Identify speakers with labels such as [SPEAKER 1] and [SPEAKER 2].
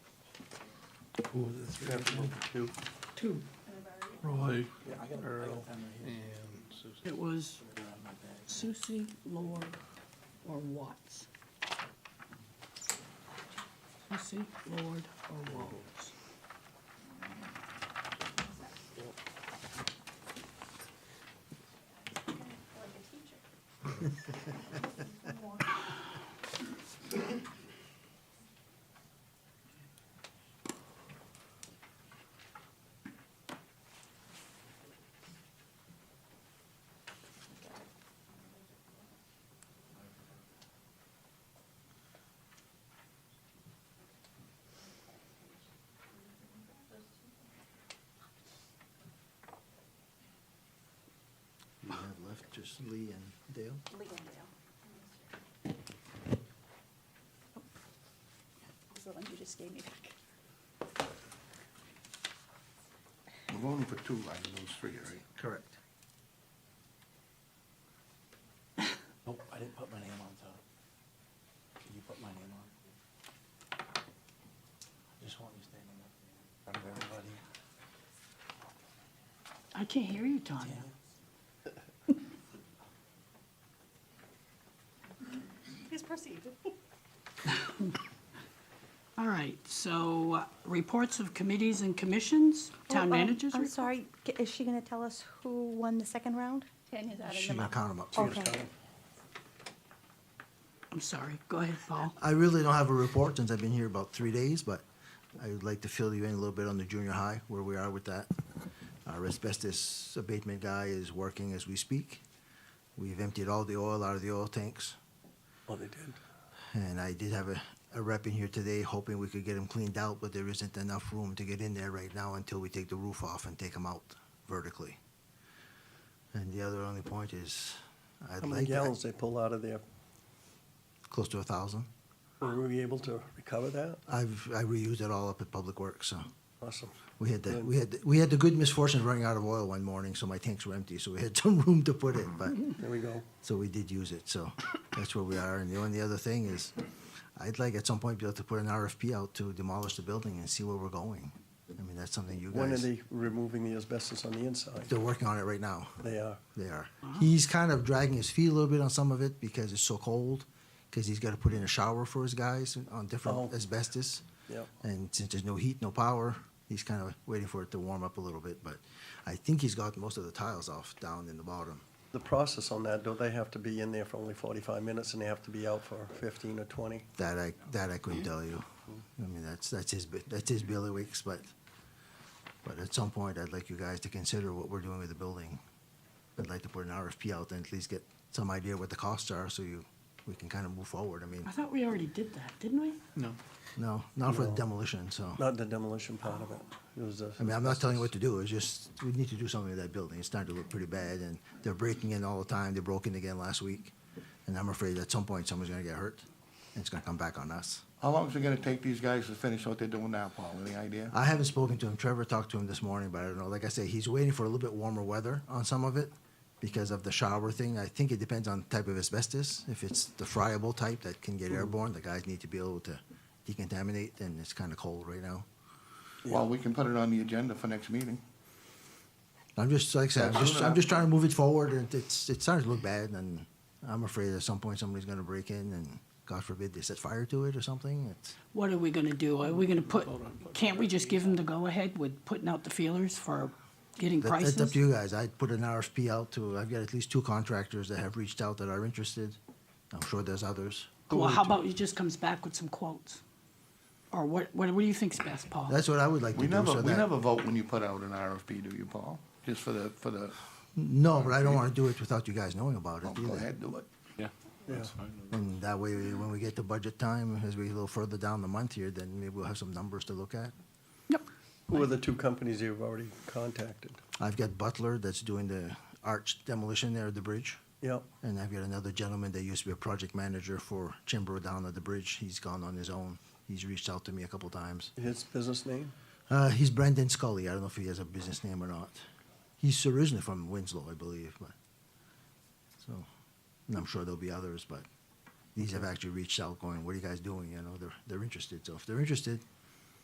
[SPEAKER 1] Who was it? Three of them?
[SPEAKER 2] Two.
[SPEAKER 1] Two. Roy, Earl,
[SPEAKER 2] And Susan.
[SPEAKER 3] It was Susie, Lore, or Watts. Susie, Lord, or Watts.
[SPEAKER 4] You have left just Lee and Dale?
[SPEAKER 5] Lee and Dale. Oh, This is the one you just gave me back.
[SPEAKER 2] We're voting for two out of those three, right?
[SPEAKER 4] Correct.
[SPEAKER 6] Nope, I didn't put my name on, Tom. Can you put my name on? I just want you standing up in front of everybody.
[SPEAKER 3] I can't hear you, Tanya.
[SPEAKER 5] Please proceed.
[SPEAKER 3] All right, so uh, reports of committees and commissions, town managers.
[SPEAKER 5] Oh, I'm
[SPEAKER 3] report.
[SPEAKER 5] sorry, g- is she going to tell us who won the second round? Tanya's
[SPEAKER 4] She can count them up.
[SPEAKER 5] Okay.
[SPEAKER 3] I'm sorry, go ahead, Paul.
[SPEAKER 4] I really don't have a report since I've been here about three days, but I would like to fill you in a little bit on the junior high, where we are with that. Our asbestos abatement guy is working as we speak. We've emptied all the oil out of the oil tanks.
[SPEAKER 2] Oh, they did?
[SPEAKER 4] And I did have a, a rep in here today hoping we could get them cleaned out, but there isn't enough room to get in there right now until we take the roof off and take them out vertically. And the other only point is, I'd
[SPEAKER 7] How many
[SPEAKER 4] like,
[SPEAKER 7] gallons they pull out of there?
[SPEAKER 4] close to a thousand.
[SPEAKER 7] Were we able to recover that?
[SPEAKER 4] I've, I reused it all up at Public Works, so.
[SPEAKER 7] Awesome.
[SPEAKER 4] We had the, we had, the- we had the good misfortune of running out of oil one morning, so my tanks were empty, so we had some room to put it, but,
[SPEAKER 7] There we go.
[SPEAKER 4] so we did use it, so that's where we are. And the only other thing is, I'd like at some point be able to put an RFP out to demolish the building and see where we're going. I mean, that's something you
[SPEAKER 7] When are
[SPEAKER 4] guys,
[SPEAKER 7] they removing the asbestos on the inside?
[SPEAKER 4] they're working on it right now.
[SPEAKER 7] They are.
[SPEAKER 4] They are. He's kind of dragging his feet a little bit on some of it because it's so cold, because he's got to put in a shower for his guys on different
[SPEAKER 7] Oh.
[SPEAKER 4] asbestos.
[SPEAKER 7] Yep.
[SPEAKER 4] And since there's no heat, no power, he's kind of waiting for it to warm up a little bit. But I think he's got most of the tiles off down in the bottom.
[SPEAKER 7] The process on that, do they have to be in there for only forty-five minutes and they have to be out for fifteen or twenty?
[SPEAKER 4] That I that I couldn't tell you. I mean, that's that's his bi- that's his bailiwicks, but but at some point, I'd like you guys to consider what we're doing with the building. I'd like to put an RFP out and at least get some idea what the costs are, so you we can kind of move forward. I mean.
[SPEAKER 3] I thought we already did that, didn't we?
[SPEAKER 2] No.
[SPEAKER 4] No, not for the
[SPEAKER 7] No.
[SPEAKER 4] demolition, so.
[SPEAKER 7] Not the demolition part of it. It was the.
[SPEAKER 4] I mean, I'm not telling you what to do, it's just, we need to do something with that building, it's starting to look pretty bad, and they're breaking in all the time, they broke in again last week. And I'm afraid at some point, someone's gonna get hurt, and it's gonna come back on us.
[SPEAKER 2] How long is it gonna take these guys to finish what they're doing now, Paul? Any idea?
[SPEAKER 4] I haven't spoken to him, Trevor talked to him this morning, but I don't know, like I say, he's waiting for a little bit warmer weather on some of it, because of the shower thing, I think it depends on the type of asbestos, if it's the friable type that can get airborne, the guys need to be able to decontaminate, and it's kinda cold right now.
[SPEAKER 2] Well, we can put it on the agenda for next meeting.
[SPEAKER 4] I'm just like I said, I'm just,
[SPEAKER 2] Absolutely.
[SPEAKER 4] I'm just trying to move it forward, and it's it's starting to look bad, and I'm afraid at some point somebody's going to break in, and God forbid they set fire to it or something. It's,
[SPEAKER 3] What are we gonna do? Are we gonna put, can't we just give them the go-ahead with putting out the feelers for getting
[SPEAKER 4] that, that's up
[SPEAKER 3] prices?
[SPEAKER 4] to you guys. I put an RFP out to. I've got at least two contractors that have reached out that are interested. I'm sure there's others.
[SPEAKER 3] Well, how about he just comes back with some quotes? Or what, what, what do you think's best, Paul?
[SPEAKER 4] That's what I would like
[SPEAKER 2] We
[SPEAKER 4] to do.
[SPEAKER 2] never,
[SPEAKER 4] so
[SPEAKER 2] we
[SPEAKER 4] that-
[SPEAKER 2] never vote when you put out an RFP, do you, Paul? Just for the, for the,
[SPEAKER 4] No, but I don't want to do it without you guys knowing about it.
[SPEAKER 2] oh, go
[SPEAKER 4] either.
[SPEAKER 2] ahead, do it.
[SPEAKER 7] Yeah.
[SPEAKER 4] And that way, when we get to budget time, as we get a little further down the month here, then maybe we'll have some numbers to look at.
[SPEAKER 3] Yep.
[SPEAKER 7] Who are the two companies you've already contacted?
[SPEAKER 4] I've got Butler that's doing the arch demolition there at the bridge.
[SPEAKER 7] Yep.
[SPEAKER 4] And I've got another gentleman that used to be a project manager for Chimbrow down at the bridge. He's gone on his own. He's reached out to me a couple times.
[SPEAKER 7] His business name?
[SPEAKER 4] Uh, he's Brendan Scully. I don't know if he has a business name or not. He's originally from Winslow, I believe, but so and I'm sure there'll be others, but these have actually reached out going, What are you guys doing? You know, they're they're interested. So if they're interested,